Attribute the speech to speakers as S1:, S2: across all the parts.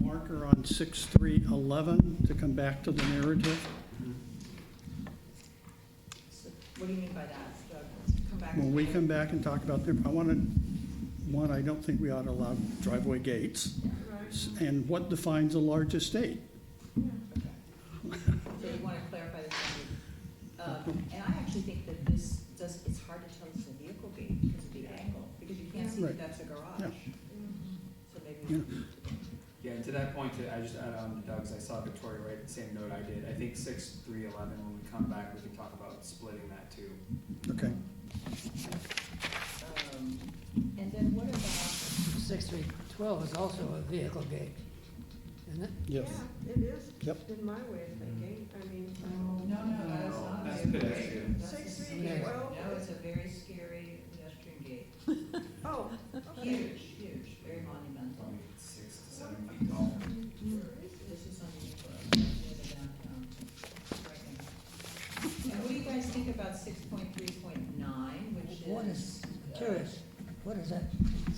S1: marker on 6311 to come back to the narrative.
S2: So What do you mean by that? The- Come back.
S1: When we come back and talk about them, I want to, one, I don't think we ought to allow driveway gates.
S2: Right.
S1: S- And what defines a large estate?
S2: Okay. So you want to clarify this language. Um, And I actually think that this does, it's hard to tell if it's a vehicle gate because of the angle, because you can't see
S1: Right.
S2: that that's a garage.
S1: Yeah.
S2: So maybe. we
S3: Yeah, and to that point, I just add on to Doug's, I saw Victoria write the same note I did. I think six, three, eleven, when we come back, we can talk about splitting that too.
S1: Okay,
S2: um, And then what about?
S4: Six three twelve is also a vehicle gate, isn't it?
S1: yes.
S5: Yeah, it is.
S1: Yep.
S5: In my way of thinking, I mean.
S2: Mm. that's
S3: No,
S2: not a
S3: that's
S2: vehicle gate.
S3: pedestrian.
S2: That's a
S5: Six, three,
S2: scary-
S5: twelve.
S2: No, it's a very scary pedestrian gate.
S5: Oh, okay.
S2: Huge, huge, very monumental.
S3: Probably six to seven feet tall.
S2: This is on the, uh, near the downtown, right now. And what do you guys think about six point three point nine, which is?
S4: What is, curious, what is that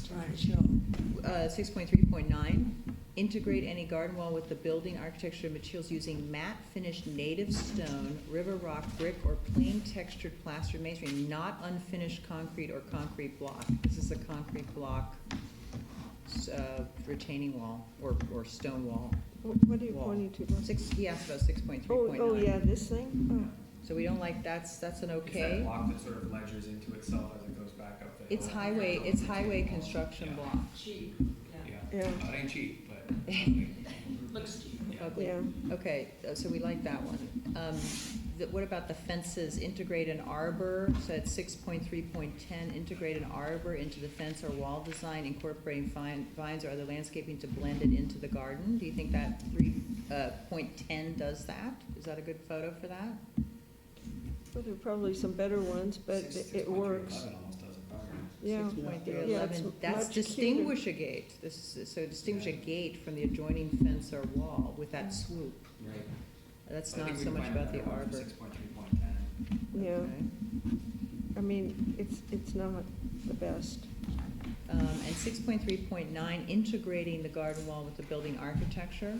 S4: trying to show?
S2: Uh, six point three point nine, integrate any garden wall with the building architecture materials using matte finished native stone, river rock, brick, or plain textured plaster masonry, not unfinished concrete or concrete block. This is a concrete block, s- uh, retaining wall or, or stone wall.
S5: Wh- What are you pointing to?
S2: Six, he asked about six point three
S5: Oh,
S2: point nine.
S5: oh, yeah, this thing?
S2: So we don't like, that's, that's an
S3: It's that
S2: okay.
S3: block that sort of ledgers into itself as it goes back up the hill.
S2: It's highway, it's highway construction block.
S6: Cheap,
S3: Yeah,
S5: Oh, yeah,
S3: Well, it ain't cheap, but. Yeah.
S6: looks cheap.
S2: Ugly.
S5: Oh, yeah.
S2: Okay, uh, so we like that one. Um, th- what about the fences? Integrate an arbor, so at six point three point ten, integrate an arbor into the fence or wall design incorporating vine- vines or other landscaping to blend it into the garden. Do you think that three, uh, point ten does that? Is that a good photo for that?
S5: Well, there are probably some better ones, but
S3: Six-
S5: it- it
S3: 6.3
S5: works.
S3: eleven almost does it.
S5: Yeah.
S2: Six point three
S5: Yeah, it's
S2: eleven, that's
S5: much cuter.
S2: distinguish a gate, this is, so distinguish a gate from the adjoining fence or wall with that swoop.
S3: Right.
S2: That's
S3: I think
S2: not
S3: we
S2: so
S3: can
S2: much
S3: find
S2: about the
S3: another one for
S2: arbor.
S3: Six point three point ten.
S5: Yeah,
S2: Okay.
S5: I mean, it's, it's not the best.
S2: Um, and six point three point nine, integrating the garden wall with the building architecture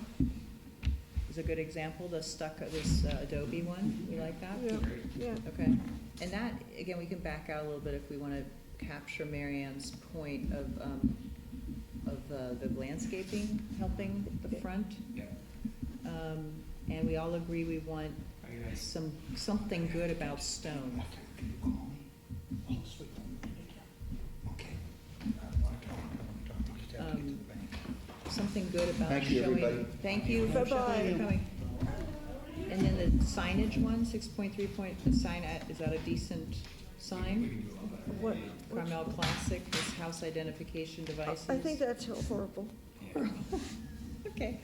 S2: is a good example, the stuck, this uh, adobe one, we like that?
S5: Yeah, yeah.
S2: Okay, and that, again, we can back out a little bit if we want to capture Marianne's point of, um, of uh, the landscaping helping the front.
S3: Yeah.
S2: Um, and we all agree we want
S3: Are you guys?
S2: some, something good about stone. Um, Something good about showing.
S7: Thank you, everybody.
S2: Thank you for
S5: Bye-bye.
S2: showing and coming. And then the signage one, six point three point, the sign, at- is that a decent
S3: We
S2: sign?
S3: can do a lot better.
S5: What?
S2: Carmel Classic, this house identification devices.
S5: I think that's horrible.
S3: Yeah.
S2: Okay,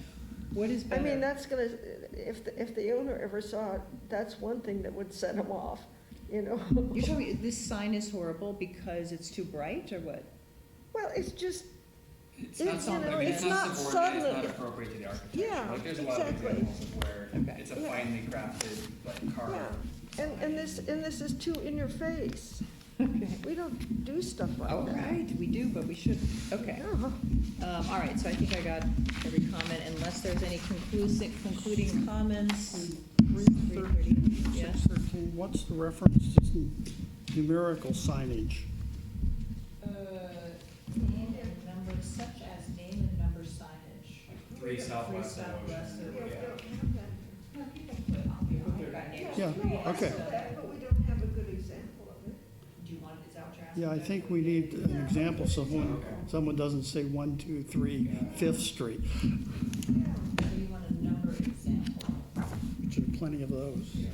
S2: what is
S5: I
S2: better?
S5: mean, that's gonna, if, the- if the owner ever saw it, that's one thing that would set him off, you know?
S2: You're telling me this sign is horrible because it's too bright, or what?
S5: Well, it's just,
S3: It's
S5: It-
S3: not
S5: you
S3: something,
S5: know,
S3: it's
S5: it's
S3: not
S5: not
S3: subordinate, it's
S5: subtle.
S3: not appropriate to the architecture,
S5: Yeah,
S3: like, there's a lot of
S5: exactly.
S3: examples of where
S2: Okay.
S3: it's a
S5: Yeah.
S3: finely crafted, like, carved.
S5: yeah, and, and this, and this is too in your face. We don't do stuff
S2: All
S5: like that.
S2: right, we do, but we shouldn't, okay.
S5: No.
S2: Um, all right, so I think I got every comment, unless there's any conclusive, concluding comments.
S1: 313,
S2: Yeah.
S1: 613, what's the reference to some numerical signage?
S2: Uh, name and number, such as name and number signage.
S3: Like Three southwest of
S2: southwest
S3: Ocean,
S2: of-
S3: or- yeah.
S2: No, people put on there, I've got names.
S1: Yeah, okay.
S2: So,
S5: we don't have a good example of it.
S2: Do you want, is that what you're asking?
S1: Yeah, I think we need an example, someone, someone doesn't say one, two, three, Fifth Street,
S2: So you want a number example?
S1: which are plenty of those.
S3: Yeah.